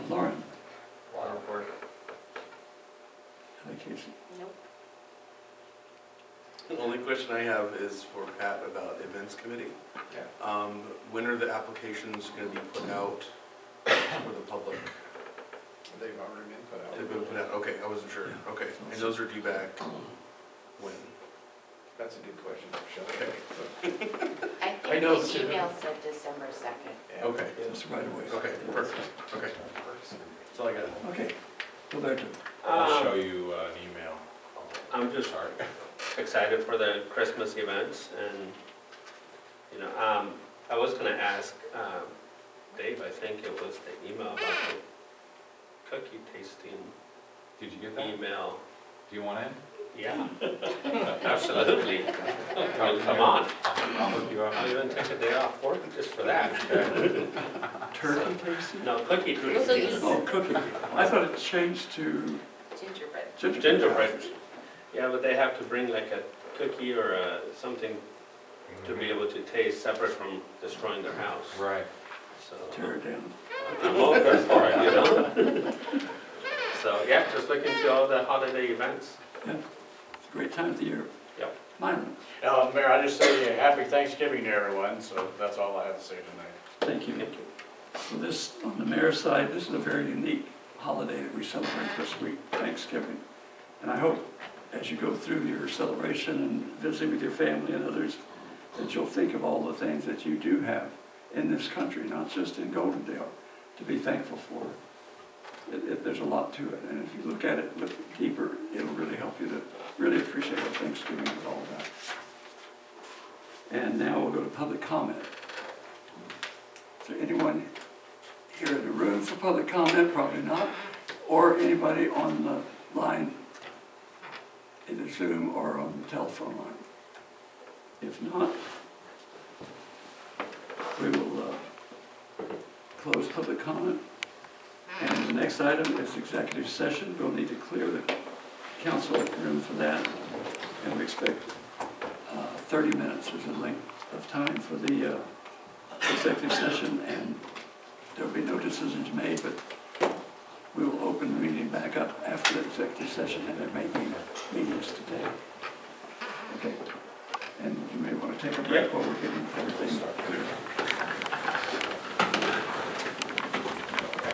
vacation. Nope. The only question I have is for Pat about the events committee. Yeah. Um, when are the applications gonna be put out for the public? They've already been put out. They've been put out, okay, I wasn't sure, okay, and those are due back when? That's a good question for Okay. Shelley. I I know think it's the in the- email said December second. Yeah. Okay, That's right away. okay, perfect, okay, that's all I got. Okay, well, there too. Um, I'll show you uh, an email. I'm just Sorry. excited for the Christmas events and, you know, um, I was gonna ask, um, Dave, I think it was the email about the cookie tasting Did you get that? email. Do you want in? Yeah, absolutely. I mean, Come on, I'll look you I'll up. even take a day off work just for that. Turkey tasting? No, cookie Those are tasting, these Oh, cookie. I thought it changed to gingerbread. gingerbread. gingerbread. Yeah, but they have to bring like a cookie or a, something to be able to taste separate from destroying their house, Right. so. Tear it down. I'm over for it, you know? So, yeah, just looking to all the holiday events. It's a great time of the year. Yep. Mine, Uh, Mayor, I just say uh, happy Thanksgiving to everyone, so that's all I have to say tonight. thank you. So this, on the mayor's side, this is a very unique holiday that we celebrate this week, Thanksgiving. And I hope, as you go through your celebration and visiting with your family and others, that you'll think of all the things that you do have in this country, not just in Goldendale, to be thankful for. It, it, there's a lot to it, and if you look at it, look deeper, it'll really help you to really appreciate what Thanksgiving is all about. And now we'll go to public comment. Is there anyone here in the room for public comment? Probably not. Or anybody on the line, in the Zoom or on the telephone line? If not, we will uh, close public comment. And the next item is executive session. We'll need to clear the council room for that. And we expect uh, 30 minutes is the length of time for the uh, executive session, and there'll be no decisions made, but we will open the meeting back up after the executive session, and there may be meetings today. Okay, and you may want to take a break while we're getting everything started.